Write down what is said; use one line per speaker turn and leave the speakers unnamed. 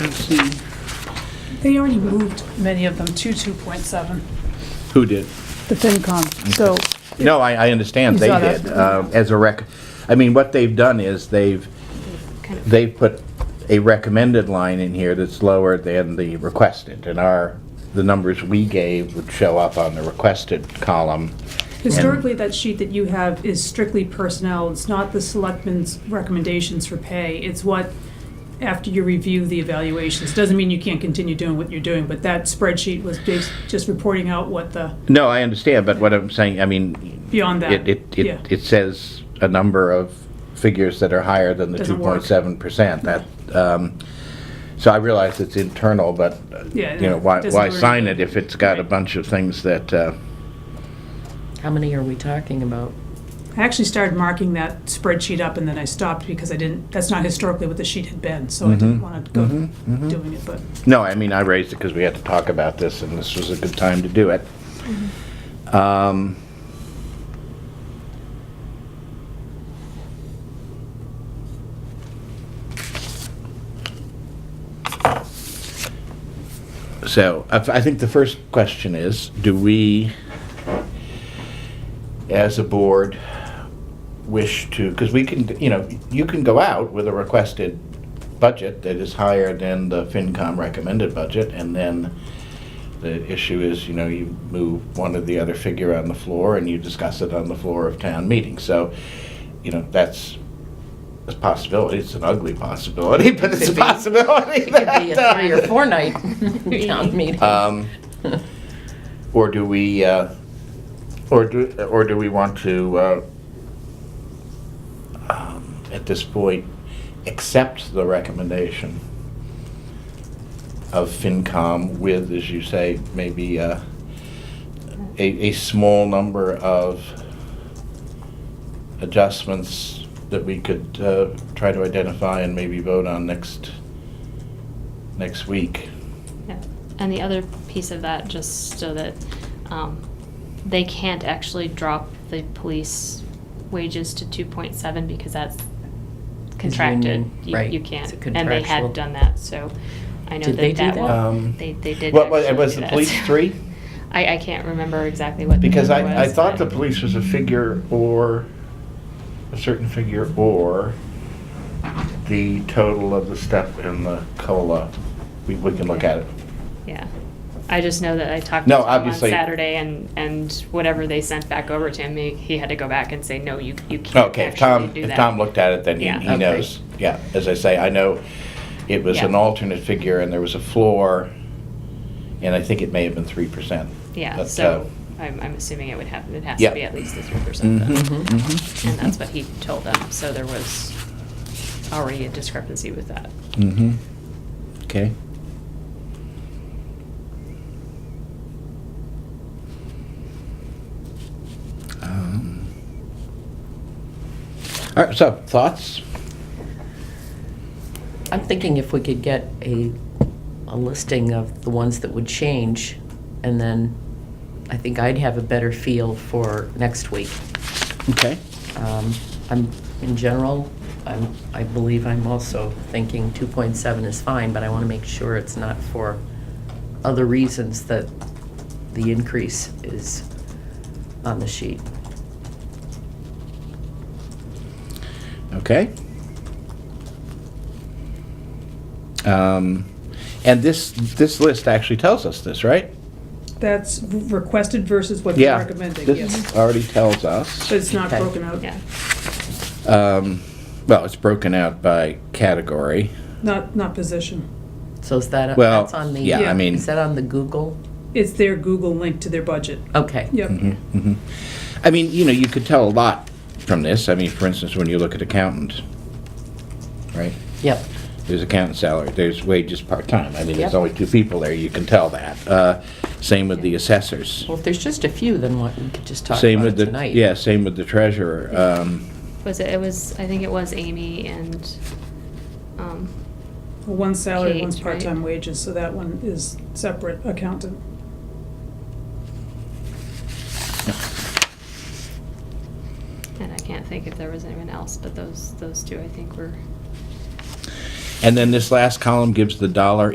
19. They already moved many of them to 2.7,
Who did?
the FinCom. So
No, I, I understand,
You
they
saw
did,
that.
uh, as a rec, I mean, what they've done is they've, they've put a recommended line in here that's lower than the requested, and our, the numbers we gave would show up on the requested column.
Historically, that sheet that you have is strictly personnel. It's not the selectmen's recommendations for pay. It's what, after you review the evaluations, doesn't mean you can't continue doing what you're doing, but that spreadsheet was just just reporting out what the,
No, I understand, but what I'm saying, I mean,
beyond that.
it, it,
Yeah.
it, it says a number of figures that are higher than the two
Doesn't work.
point seven percent, that, um, so I realize it's internal, but, uh,
Yeah,
you know,
it
why,
doesn't
why
really-
sign it if it's got a
Right.
bunch of things that, uh,
How many are we talking about?
I actually started marking that spreadsheet up and then I stopped because I didn't, that's not historically what the sheet had been, so I
Mm-hmm.
didn't want to go doing it, but.
No, I mean, I raised it because we had to talk about this, and this was a good time to do it. Um, So, I I think the first question is, do we, as a board, wish to, because we can, you know, you can go out with a requested budget that is higher than the FinCom recommended budget, and then the issue is, you know, you move one or the other figure on the floor and you discuss it on the floor of town meeting. So, you know, that's a possibility. It's an ugly possibility, but it's a
Could be-
possibility.
It could be a
that, uh,
three or four night town meeting.
um, Or do we, uh, or do, or do we want to, uh, um, at this point, accept the recommendation of FinCom with, as you say, maybe uh, a, a small number of adjustments that we could uh, try to identify and maybe vote on next, next week?
Yeah. And the other piece of that, just so that um, they can't actually drop the police wages to 2.7 because that's contracted.
union,
You-
right.
You
It's
can't.
a
And they
contractual.
had done that, so I know
Did they
that
do
that
that?
Um,
one, Oh, they, they did.
What was,
actually
was
do
the
that,
police
so
three?
I, I can't remember exactly what. the
Because
number
I, I
was,
thought the
but-
police was a figure or, a certain figure or the total of the step in the COLA. We, we can look at it.
Yeah. I just know that I talked
No,
to him on
obviously-
Saturday and, and whatever they sent back over to him, he, he had to go back and say, no, you, you can't
Okay, if Tom,
actually do
if
that.
Tom looked at it, then he,
Yeah.
he
Okay.
knows. Yeah, as I say, I know it was
Yeah.
an alternate figure and there was a floor and I think it may have been three percent. uh,
Yeah, so I'm, I'm assuming it would have, it has
Yeah.
to be at least the three percent
Mm-hmm.
then. And that's what he told them, so there was already a discrepancy with that.
Mm-hmm. Okay. Um, All right, so thoughts?
I'm thinking if we could get a, a listing of the ones that would change, and then I think I'd have a better feel for next week.
Okay.
Um, I'm, in general, I'm, I believe I'm also thinking 2.7 is fine, but I want to make sure it's not for other reasons that the increase is on the sheet.
Okay. Um, And this, this list actually tells us this, right?
That's requested versus what they're recommending,
Yeah,
yes.
this already tells us.
But it's not
Okay.
broken out,
Yeah,
Um, Well, it's broken out by category.
not, not position.
So is that,
Well,
that's on the,
yeah, I mean.
is that on the Google?
It's their Google link to their budget.
Okay.
Yep,
I mean, you know, you could tell a lot from this. I mean, for instance, when you look at accountants, right?
Yep.
There's accountant salary, there's wages part-time. I mean,
Yep.
there's only two people there, you can tell that. Uh, Same with the assessors.
Well, if there's just a few, then what, we could just talk about
Same
it
with the
tonight.
Yeah, same with the treasurer. Um,
was it, it was, I think it was Amy and, um,
one's salary, one's
Kate, right?
part-time wages, so that one is separate accountant.
and I can't think if there was anyone else, but those, those two I think were.
And then this last column gives the dollar